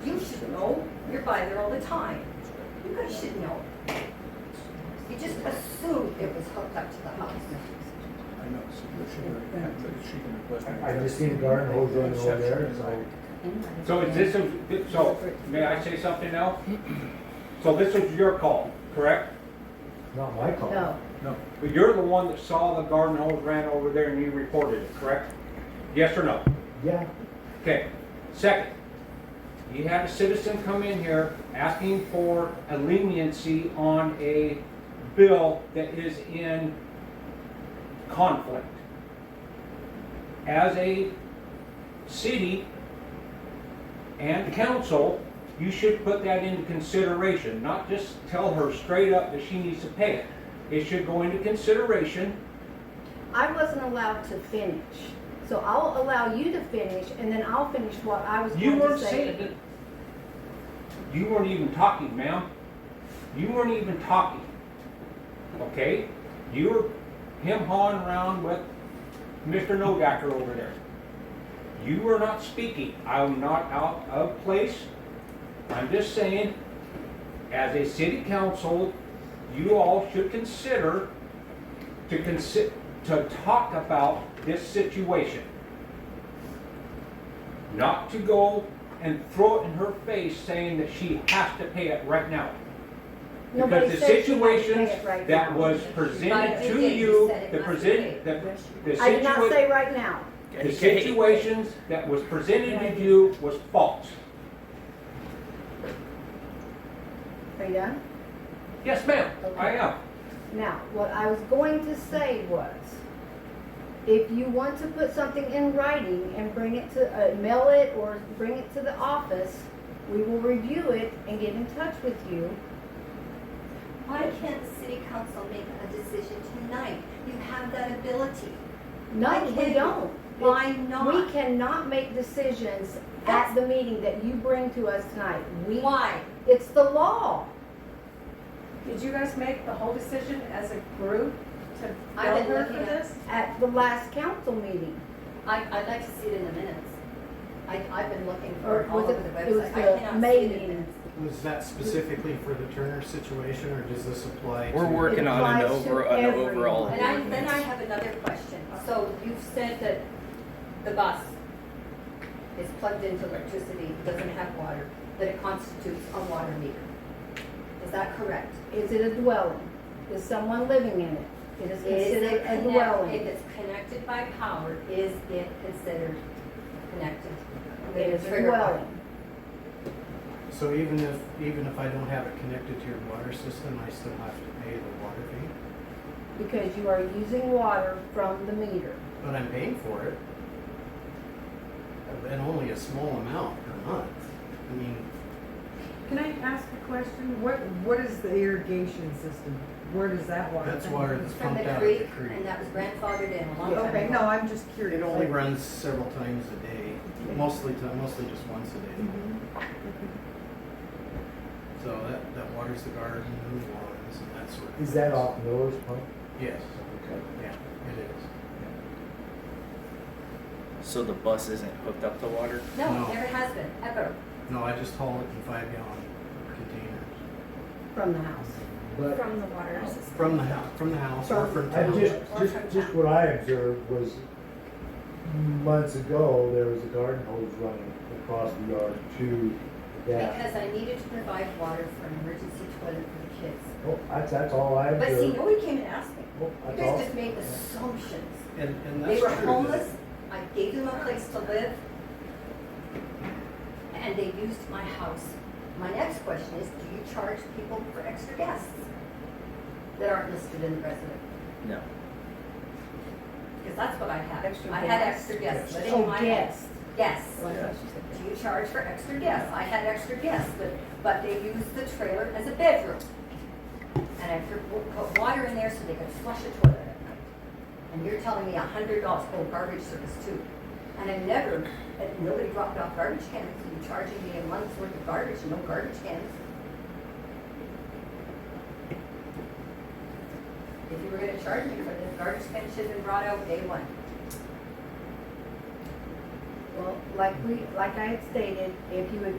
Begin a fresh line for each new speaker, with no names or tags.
professional, you're by there all the time. You guys should know. You just assumed it was hooked up to the house.
I know, so you should, have- she can request.
I I just seen a garden hose running over there, and I,
So is this, a- so, may I say something now? So this was your call, correct?
not my call.
No,
No,
But you're the one that saw the garden hose ran over there and you reported it, correct? Yes or no?
Yeah,
Okay. Second, you had a citizen come in here asking for a leniency on a bill that is in conflict. As a city and council, you should put that into consideration, not just tell her straight up that she needs to pay it. It should go into consideration.
I wasn't allowed to finish. So I'll allow you to finish and then I'll finish what I was
You
going to
weren't
say.
saying that. You weren't even talking, ma'am. You weren't even talking. Okay? You were him hawing around with Mr. Nogacker over there. You were not speaking. I'm not out of place. I'm just saying, as a city council, you all should consider to consi- to talk about this situation not to go and throw it in her face saying that she has to pay it right now.
Nobody
Because the
said she had to pay
situations
it right
that
now.
was
But
presented
you
to
did, you
you,
said it
the
must
present,
be.
the, the
I did not
situa-
say right now.
the situations that was presented to you was false.
Are you done?
Yes, ma'am, I
Okay.
am.
Now, what I was going to say was, if you want to put something in writing and bring it to, uh, mail it or bring it to the office, we will review it and get in touch with you.
Why can't the city council make a decision tonight? You have that ability.
No, we
Okay.
don't.
Why
We
not?
cannot make decisions at the meeting that you bring to us tonight. We,
Why?
it's the law.
Did you guys make the whole decision as a group to
I've
bill
been
her
looking
for
at-
this?
At the last council meeting,
I, I'd like to see it in the minutes. I, I've been looking
Or
for it all
was
over
it-
the
it was
website.
I
the
cannot see
May
it in
meeting.
minutes.
Was that specifically for the Turner situation, or does this apply to?
We're working on an
applies to
over, an overall.
everyone.
And I, then I have another question.
So you've said that the bus is plugged into electricity, doesn't have water, that it constitutes a water meter. Is that correct?
is it a dwelling? Is someone living in it? It is
Is
considered
it
a
connected, if
dwelling.
it's connected by power, is it considered connected?
It is a
Trigger warning.
dwelling.
So even if, even if I don't have it connected to your water system, I still have to pay the water fee,
Because you are using water from the meter.
but I'm paying for it. And only a small amount per month. I mean,
Can I ask a question? What, what is the irrigation system? Where does that water?
that's water that's
From the
pumped out of the
creek,
creek.
and that was grandfathered in a long time ago.
Okay, no, I'm just curious.
It only runs several times a day, mostly, ti- mostly just once a day.
Mhm.
So that, that waters the garden, and the lawns, and that sort of.
is that off Miller's pump?
Yes,
Okay.
yeah, it is.
So the bus isn't hooked up to water?
No,
No.
never has been, ever.
No, I just haul it in five gallon containers.
From the house.
But
From the water system.
From the house, from the house or from
I
town.
just, just, just what I observed was months ago, there was a garden hose running across the yard to that.
Because I needed to provide water for an emergency toilet for the kids.
Oh, that's, that's all I
But see,
observed.
nobody came and asked me.
Oh,
You
that's all.
guys just made assumptions.
And, and that's
They
true.
were
that-
homeless, I gave them a place to live, and they used my house. My next question is, do you charge people for extra guests that aren't listed in the resident?
No.
Because that's what I had.
Extra
I had
guests?
extra guests living in
Oh,
my house.
yes.
Yes.
Yeah.
Do you charge for extra guests? I had extra guests, but, but they used the trailer as a bedroom. And I put- put water in there so they could flush a toilet at night. And you're telling me a hundred dollars, oh, garbage service too. And I never, and nobody dropped off garbage cans, you charging me a month's worth of garbage, no garbage cans. If you were gonna charge me for this, garbage cans should have been brought out day one.
Well, like we, like I had stated, if you would